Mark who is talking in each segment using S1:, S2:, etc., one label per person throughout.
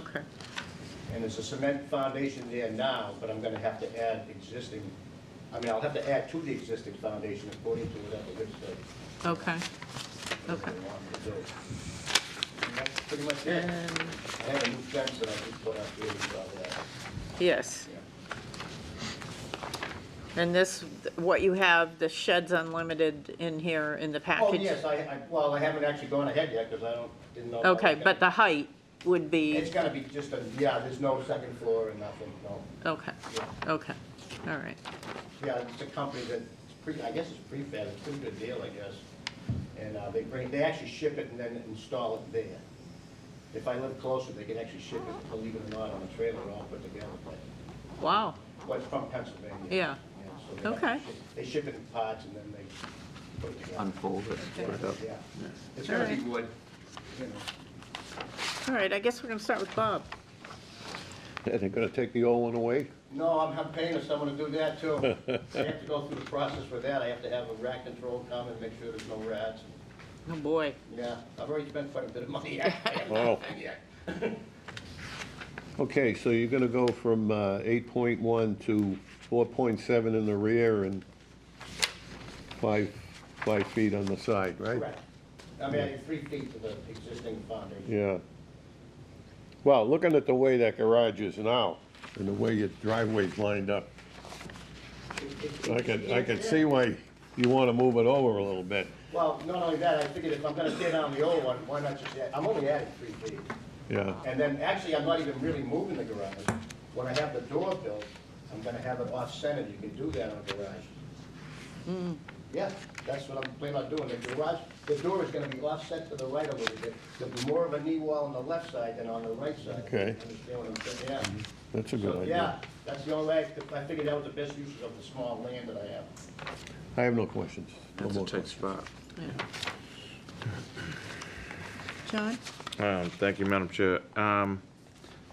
S1: Okay.
S2: And there's a cement foundation there now, but I'm gonna have to add existing, I mean, I'll have to add to the existing foundation according to whatever this says.
S1: Okay, okay.
S2: they want me to do. And that's pretty much it.
S1: And,
S2: I have a new fence that I just put up here, and all that,
S1: yes,
S2: yeah.
S1: and this, what you have, the sheds unlimited in here in the
S2: Oh,
S1: package?
S2: yes, I, I, well, I haven't actually gone ahead yet, because I don't, didn't know. if I was
S1: Okay,
S2: gonna-
S1: but the height would
S2: It's
S1: be,
S2: gonna be just a, yeah, there's no second floor or nothing, no.
S1: okay,
S2: Yeah.
S1: okay, all right.
S2: Yeah, it's a company that, pre- I guess it's prefab, it's a pretty good deal, I guess. And uh, they bring, they actually ship it and then install it there. If I live closer, they can actually ship it, believe it or not, on a trailer all put together.
S1: Wow,
S2: Well, it's from Pennsylvania.
S1: Yeah.
S2: so they have to
S1: Okay.
S2: ship- They ship it in parts and then they put it together.
S3: unfold it, put it up.
S2: Yeah. It's gonna be
S1: Alright.
S2: wood, you know.
S1: all right, I guess we're gonna start with Bob.
S4: Yeah, they're gonna take the old one away?
S2: No, I'm, I'm paying someone to do that too. I have to go through the process for that. I have to have a rat control come and make sure there's no rats.
S1: Oh, boy.
S2: Yeah, I've already spent quite a bit of money.
S4: Wow.
S2: Yeah.
S4: Okay, so you're gonna go from uh, eight point one to four point seven in the rear and five, five feet on the side, right?
S2: Correct. I'm adding three feet to the existing foundation.
S4: Yeah. Well, looking at the way that garage is now, and the way your driveway's lined up, I could, I could see why you wanna move it over a little bit,
S2: Well, not only that, I figured if I'm gonna tear down the old one, why not just add, I'm only adding three feet.
S4: yeah.
S2: And then, actually, I'm not even really moving the garage. When I have the door built, I'm gonna have it off-centered, you can do that on a garage. Yeah, that's what I'm planning on doing, the garage, the door is gonna be offset to the right a little bit. There'll be more of a knee wall on the left side than on the right side.
S4: Okay.
S2: Understand what I'm saying, yeah.
S4: That's a good
S2: So, yeah,
S4: idea.
S2: that's the only way, I could- I figured that was the best use of the small land that I have.
S4: I have no questions. No
S3: That's a
S4: more
S3: tight
S4: questions.
S3: spot.
S1: John?
S5: Um, Thank you, Madam Chair. Um,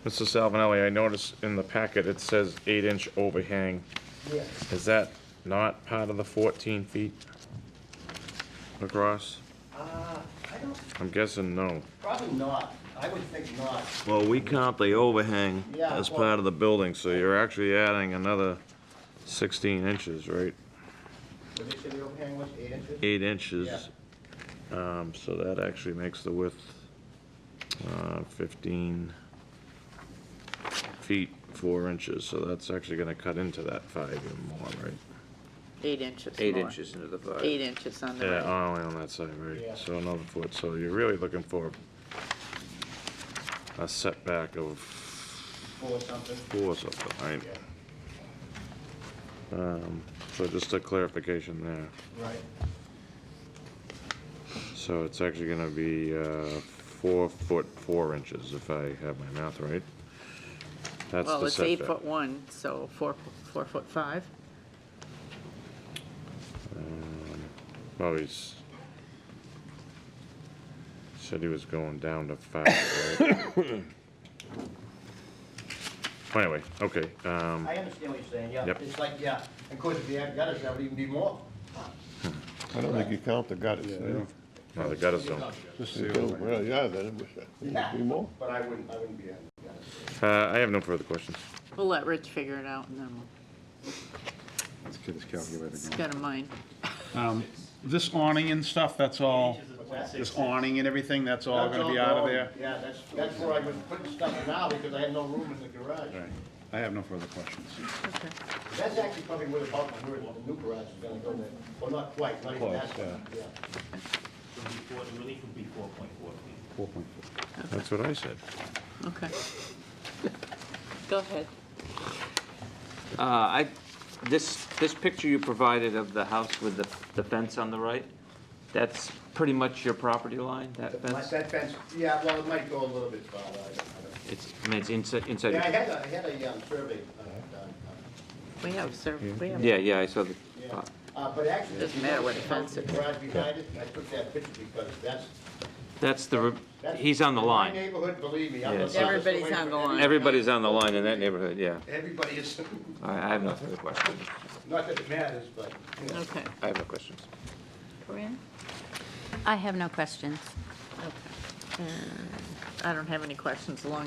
S5: Mr. Salvinelli, I noticed in the packet, it says eight-inch overhang.
S2: Yeah,
S5: Is that not part of the 14 feet across?
S2: uh, I don't,
S5: I'm guessing no.
S2: probably not, I would think not.
S5: Well, we count the overhang
S2: Yeah, as well- part
S5: of the building, so you're actually adding another 16 inches, right?
S2: Would they say the overhang was eight inches?
S5: Eight inches.
S2: Yeah.
S5: Um, So that actually makes the width uh, 15 feet, 4 inches. So that's actually going to cut into that 5 even more, right?
S1: Eight inches
S3: Eight
S1: more.
S3: inches into the five.
S1: Eight inches on the
S5: Yeah,
S1: right.
S5: only on that side,
S2: Yeah.
S5: right? So another foot. So you're really looking for a setback of
S2: Or something,
S5: 4 or something, right?
S2: yeah,
S5: So just a clarification there.
S2: right.
S5: So it's actually going to be uh, 4 foot 4 inches, if I have my math right? That's
S1: Well,
S5: the
S1: it's eight
S5: setback.
S1: foot one, so four, four foot five.
S5: Well, Oh, he's, said he was going down to five, right? Anyway, okay, um,
S2: I understand what you're saying, yeah,
S5: Yep.
S2: it's like, yeah, of course, if you had gutters, that would even be more.
S4: I don't think you count the gutters, do you?
S5: no, the gutters don't.
S4: Well, yeah, then it was, it
S2: Yeah,
S4: would be more.
S2: But I wouldn't, I wouldn't be adding gutters.
S5: Uh, I have no further questions.
S1: We'll let Rich figure it out and then
S3: Let's get his calculator
S1: he's got a mind.
S6: Um, This awning and stuff, that's all,
S2: What's that?
S6: this awning and everything, that's all gonna be out of there?
S2: Yeah, that's, that's where I was putting stuff now, because I had no room in the garage.
S6: Right. I have no further questions.
S1: Okay.
S2: That's actually probably where the bulk of the new garage is gonna go there, well, not quite, not even that, yeah.
S7: So before, the relief would be four point four feet.
S6: Four point four.
S5: That's what I said.
S1: Okay. Go ahead.
S3: Uh, I, this, this picture you provided of the house with the, the fence on the right, that's pretty much your property line, that
S2: My-
S3: fence?
S2: That fence, yeah, well, it might go a little bit farther, I don't, I don't.
S3: It's, I mean, it's inside, inside,
S2: Yeah, I
S3: your-
S2: had a, I had a um, survey uh, done, uh,
S1: We have, sir, we have.
S3: yeah, yeah, I saw the,
S2: yeah. Uh, But actually.
S1: Doesn't matter where the fence
S2: The
S1: is.
S2: garage behind it, I took that picture because that's.
S3: that's the, re-
S2: that's-
S3: he's on the
S2: in
S3: line.
S2: My neighborhood, believe me, I'm.
S3: Yeah,
S2: the
S3: it's-
S2: farthest away
S1: Everybody's on
S2: from
S1: the line.
S3: Everybody's on the line in that neighborhood, yeah.
S2: Everybody is,
S3: All right, I have no further questions.
S2: not that it matters, but, you know.
S1: Okay.
S3: I have no questions.
S1: Corinne?
S8: I have no questions.
S1: Okay. And I don't have any questions along